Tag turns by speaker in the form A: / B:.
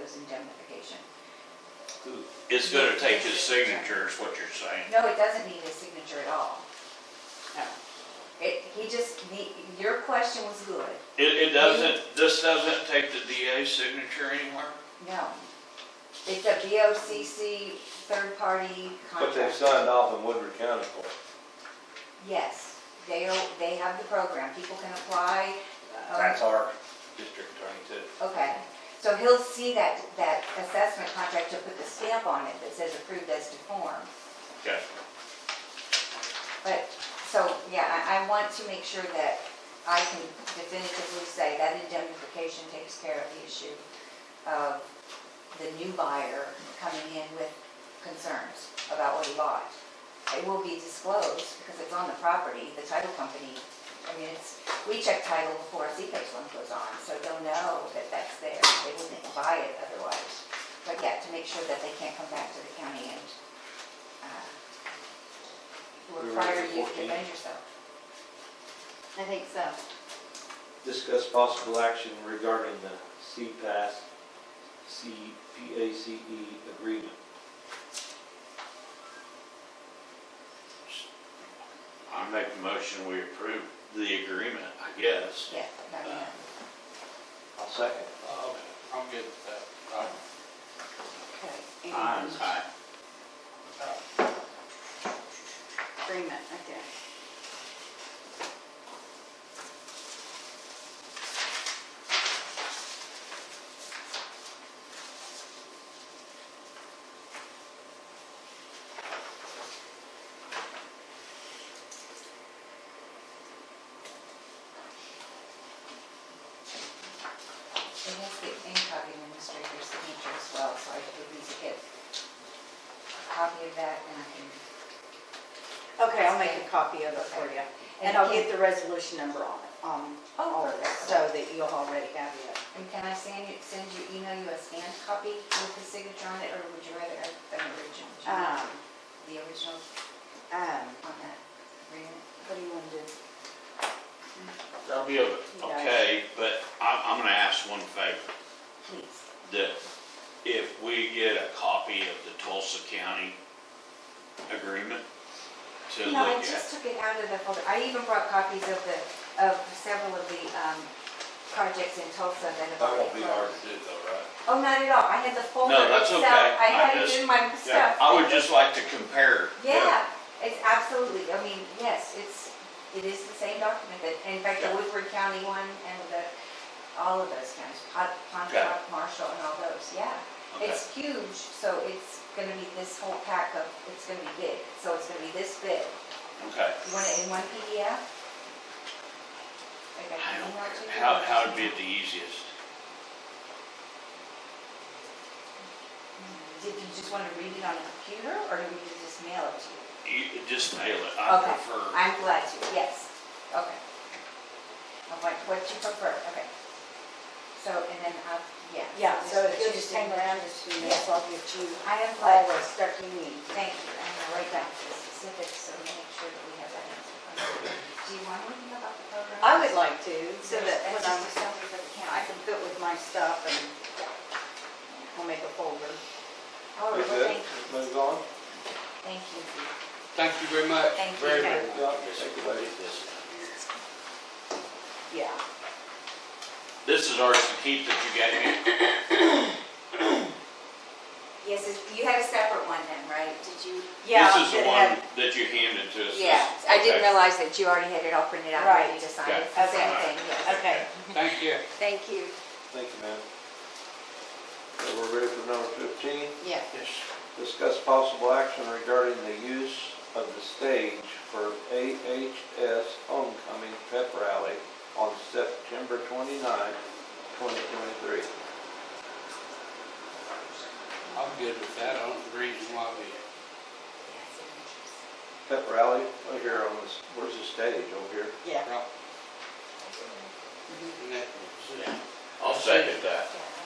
A: was indemnification.
B: It's gonna take his signature is what you're saying.
A: No, it doesn't need his signature at all. No. It, he just, need- your question was good.
B: It, it doesn't, this doesn't take the DA's signature anywhere?
A: No. It's a BOCC third-party
C: But they've
A: contract.
C: signed off in Woodward County for it.
A: Yes, they, are- they have the program. People can apply. um,
C: That's our district attorney too.
A: Okay, so he'll see that, that assessment contract, he'll put the stamp on it that says approved as to form.
B: Okay.
A: But, so, yeah, I, I want to make sure that I can definitively say that indemnification takes care of the issue of the new buyer coming in with concerns about what he bought. It will be disclosed because it's on the property, the title company, I mean, it's, we check title before a CPACE one goes on, so they'll know that that's there. They wouldn't buy it otherwise. But yeah, to make sure that they can't come back to the county and, uh,
C: We were
A: require
C: at
A: you to
C: 14.
A: defend yourself. I think so.
C: Discuss possible action regarding the CPAS, CPACE E agreement.
B: I make the motion, we approve the agreement, I guess.
A: Yeah, I mean,
C: I'll second.
D: I'm good with that.
C: Uh,
E: Okay,
B: Aye.
E: and
B: Aye.
E: agreement, okay.
A: it has the incoming administrator's signature as well, so I could easily get a copy of that and I can.
E: Okay, I'll make a copy of it for you. And I'll get the resolution number on it, on
A: Oh,
E: all of it,
A: perfect.
E: so that you'll already have it.
A: And can I send you, send you, email you a scanned copy with the signature on it, or would you rather have an original? Do you want
E: Um,
A: The original
E: um,
A: on that agreement?
E: what do you want to do?
B: That'll be okay. Okay, but I'm, I'm gonna ask one favor.
A: Please.
B: that if we get a copy of the Tulsa County agreement to
A: No, I
B: look
A: just
B: at.
A: took it out of the folder. I even brought copies of the, of several of the um, projects in Tulsa that have
C: That
A: already
C: won't be hard
A: closed.
C: to do though, right?
A: Oh, not at all. I had the folder
B: No, that's
A: itself.
B: okay.
A: I
B: I
A: had it
B: just-
A: in my
B: Yeah,
A: stuff.
B: I would just like to compare.
A: Yeah, it's absolutely, I mean, yes, it's, it is the same document that, in fact, the
B: Yeah.
A: Woodward County one and the, all of those counties, Pon- Pontotoc, Marshall and all those, yeah.
B: Okay.
A: It's huge, so it's gonna be this whole pack of, it's gonna be big, so it's gonna be this big.
B: Okay.
A: You want it in one PDF? Like I
B: I
A: can
B: don't,
A: email it to you?
B: how, how would be the easiest?
A: Did you just wanna read it on a computer, or do we just mail it to you?
B: You- Just mail it, I
A: Okay.
B: prefer.
A: I'm glad to, yes, okay. Of What, what you prefer, okay. So, and then, I'll yeah.
E: Yeah, so
A: but
E: if
A: you
E: you just hang around just a few minutes, I'll get you
A: I am
E: all
A: glad,
E: the stuff you need.
A: thank you, I'm gonna write down the specifics, so we make sure that we have that answer. Do you want anything about the program?
E: I would like to, so that
A: That's
E: when
A: just
E: I'm,
A: a sample for the
E: I
A: county.
E: can put with my stuff and I'll make a folder.
A: All right,
C: Is
A: well,
C: that-
A: thank you,
C: Move on?
A: Oh, thank you.
D: Thank you very much.
A: Thank you.
D: Very, very much.
C: Yeah.
E: Yeah.
B: This is ours to keep that you gave me.
A: Yes, is- you had a separate one then, right? Did you?
E: Yeah,
B: This is the
E: that
B: one
E: had-
B: that you handed to us.
A: Yeah, I didn't
B: Okay.
A: realize that you already had it all printed out, ready
E: Right.
A: to sign. It's
E: Yeah.
A: the same
B: Okay.
A: thing, yes.
E: Okay,
D: Thank you.
A: Thank you.
C: Thank you, ma'am. So we're ready for number fifteen.
E: yeah.
D: Yes.
C: Discuss possible action regarding the use of the stage for AHS Homecoming Pep Rally on September 29, 2023.
D: I'm good with that. I don't see reason why we,
C: Pep Rally, right here on this, where's the stage, over here?
E: Yeah.
D: right.
E: Mhm.
D: And that-
B: Yeah. I'll second that.
A: Yeah.